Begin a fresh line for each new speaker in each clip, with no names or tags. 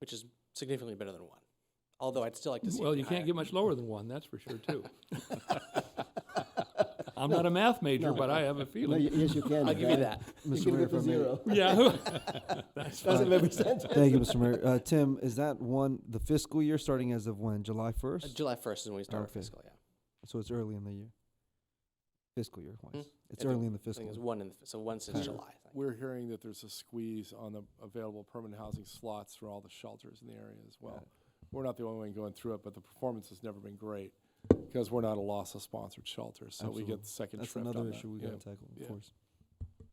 which is significantly better than one. Although I'd still like to see. it
Well,
be
you can't
higher.
get much lower than one, that's for sure, too. I'm not a math major, but I have a
No,
feeling.
y- yes, you can.
I'll give you that.
You can go to zero.
Yeah.
Doesn't make any sense.
Thank you, Mr. Mayor. Uh, Tim, is that one, the fiscal year starting as of when? July
Uh,
1st?
July first is when we start our
Okay.
fiscal. Yeah,
So it's early in the year. Fiscal year wise.
Hmm.
It's
I think-
early in the
I
fiscal
think it's
year.
one in the, so one since
Kinda.
July. I think.
We're hearing that there's a squeeze on the available permanent housing slots for all the shelters in the area as well. We're not the only one going through it, but the performance has never been great because we're not a loss of sponsored shelters, so we
Absolutely.
get the second
That's
shrift on
another
that.
issue we
Yeah.
gotta tackle, of
Yeah.
course.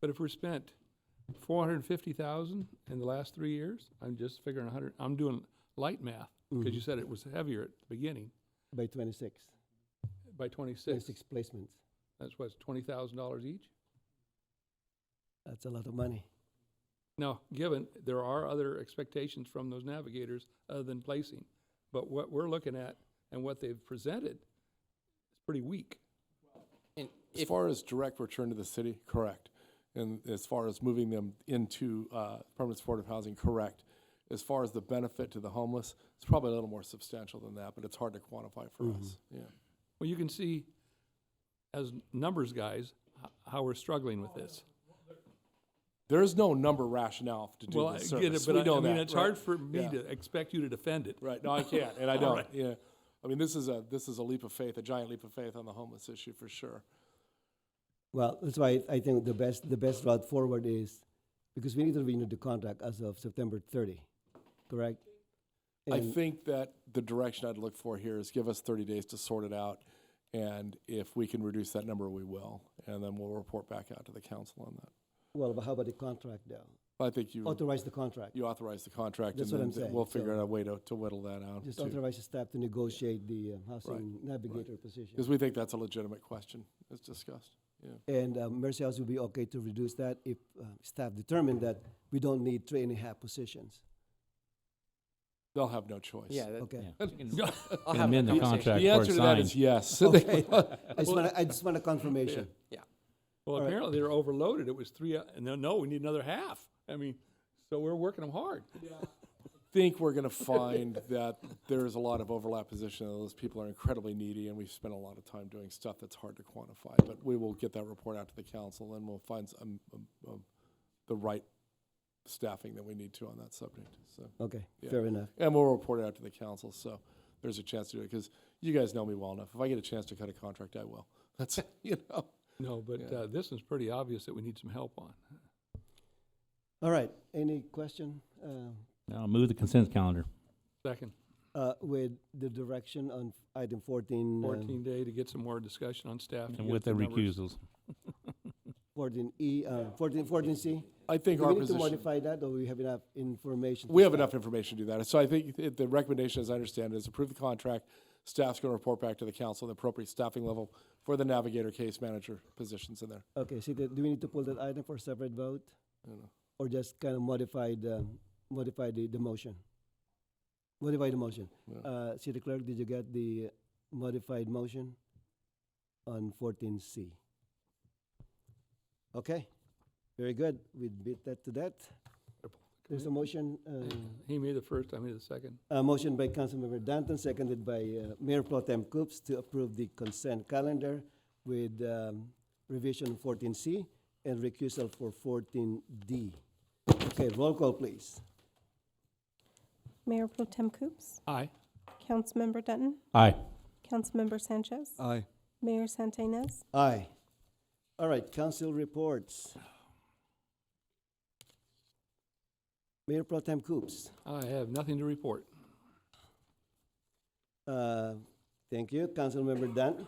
But if we're spent four hundred and fifty thousand in the last three years, I'm just figuring hundred, I'm doing light math,
Mm-hmm.
because Mm-hmm. you said it was heavier at the beginning,
By 26,
by twenty-six.
26 placements.
That's what's twenty thousand dollars each?
That's a lot of money.
Now, given there are other expectations from those navigators other than placing, but what we're looking at and what they've presented is pretty weak.
And
As
if
far as direct return to the city, correct. And as far as moving them into uh, permanent supportive housing, correct. As far as the benefit to the homeless, it's probably a little more substantial than that, but it's hard to quantify for
Mm-hmm.
us. Yeah.
Well, you can see as numbers guys, h- how we're struggling with this.
There is no number rationale to do
Well, I
this
get it,
service.
but
We
I,
know
I mean,
that,
it's
right?
hard for me
Yeah.
to expect you to defend it.
Right. No, I can't, and I
All
don't.
right.
Yeah. I mean, this is a this is a leap of faith, a giant leap of faith on the homeless issue for sure.
Well, that's why I think the best, the best route forward is, because we need to renew the contract as of September 30, correct?
I
And-
think that the direction I'd look for here is give us 30 days to sort it out, and if we can reduce that number, we will, and then we'll report back out to the council on that.
Well, but how about the contract though?
But I think you
Authorize the contract.
you authorize the contract,
That's what
and
I'm
then th-
saying,
we'll figure
so-
out a way to, to whittle that out
Just
because
authorize the staff to negotiate the uh, housing navigator position.
we think that's a legitimate question as discussed. Yeah.
And uh, Mercy House would be okay to reduce that if uh, staff determined that we don't need three and a half positions.
They'll have no choice.
yeah, that,
Okay.
I'll
Can
have
amend
that
the
conversation.
contract
The
or
answer to that
sign.
is yes.
Okay. I just want, I just want a confirmation.
Well,
All right.
apparently they're overloaded. It was three, uh, no, no, we need another half. I mean, so we're working them hard.
think we're going to find that there's a lot of overlap position. and Those people are incredibly needy, and we've spent a lot of time doing stuff that's hard to quantify. But we will get that report out to the council, and we'll find s- um, um, um, the right staffing that we need to on that subject. So,
Okay,
Yeah.
fair enough.
and we'll report it out to the council. So there's a chance to do it because you guys know me well enough. If I get a chance to cut a contract, I will. That's you know.
No, but
Yeah.
uh, this is pretty obvious that we need some help on.
All right, any question uh,
I'll move the consent calendar.
Second,
uh, with the direction on item um, 14?
14 day to get some more discussion on staff. to
And
get
with the
numbers.
recusals.
14E, uh, 14, 14C?
I think
Do
our
we need to
position.
modify that, or we have enough information? to
We have
start?
enough information to do that. So I think it- the recommendation, as I understand it, is approve the contract. Staff's going to report back to the council the appropriate staffing level for the navigator case manager positions in there.
Okay, so do do we need to pull that item for separate vote,
I don't know.
or just kind of modify the, modify the, the motion? Modify the motion.
Yeah.
Uh, City Clerk, did you get the modified motion on 14C? Okay, very good. We beat that to that. There's a motion, uh,
He made the first, I made the second.
A motion by Councilmember Danton, seconded by uh, Mayor Pro Tem Coops to approve the consent calendar with um, revision 14C and recusal for 14D. Okay, roll call, please.
Mayor Pro Tem Coops,
Aye.
Councilmember Dutton,
Aye.
Councilmember Sanchez,
Aye.
Mayor Santa Ynez,
Aye. All right, council reports. Mayor Pro Tem Coops,
I have nothing to report.
uh, thank you. Councilmember Danton,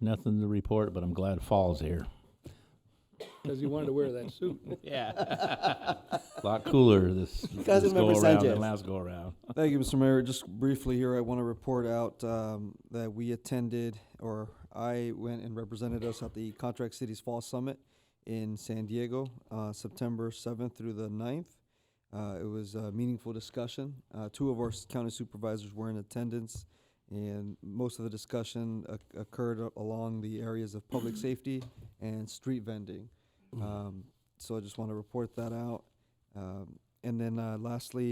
Nothing to report, but I'm glad fall's here.
Because he wanted to wear that suit.
Yeah. A lot cooler this, this go
Councilmember
around
Sanchez.
than last go around.
Thank you, Mr. Mayor. Just briefly here, I want to report out um, that we attended, or I went and represented us at the Contract Cities Fall Summit in San Diego, uh, September 7th through the 9th. Uh, it was a meaningful discussion. Uh, two of our s- county supervisors were in attendance, and most of the discussion oc- occurred a- along the areas of public safety and street vending. Um, so I just want to report that out. Um, and then uh, lastly,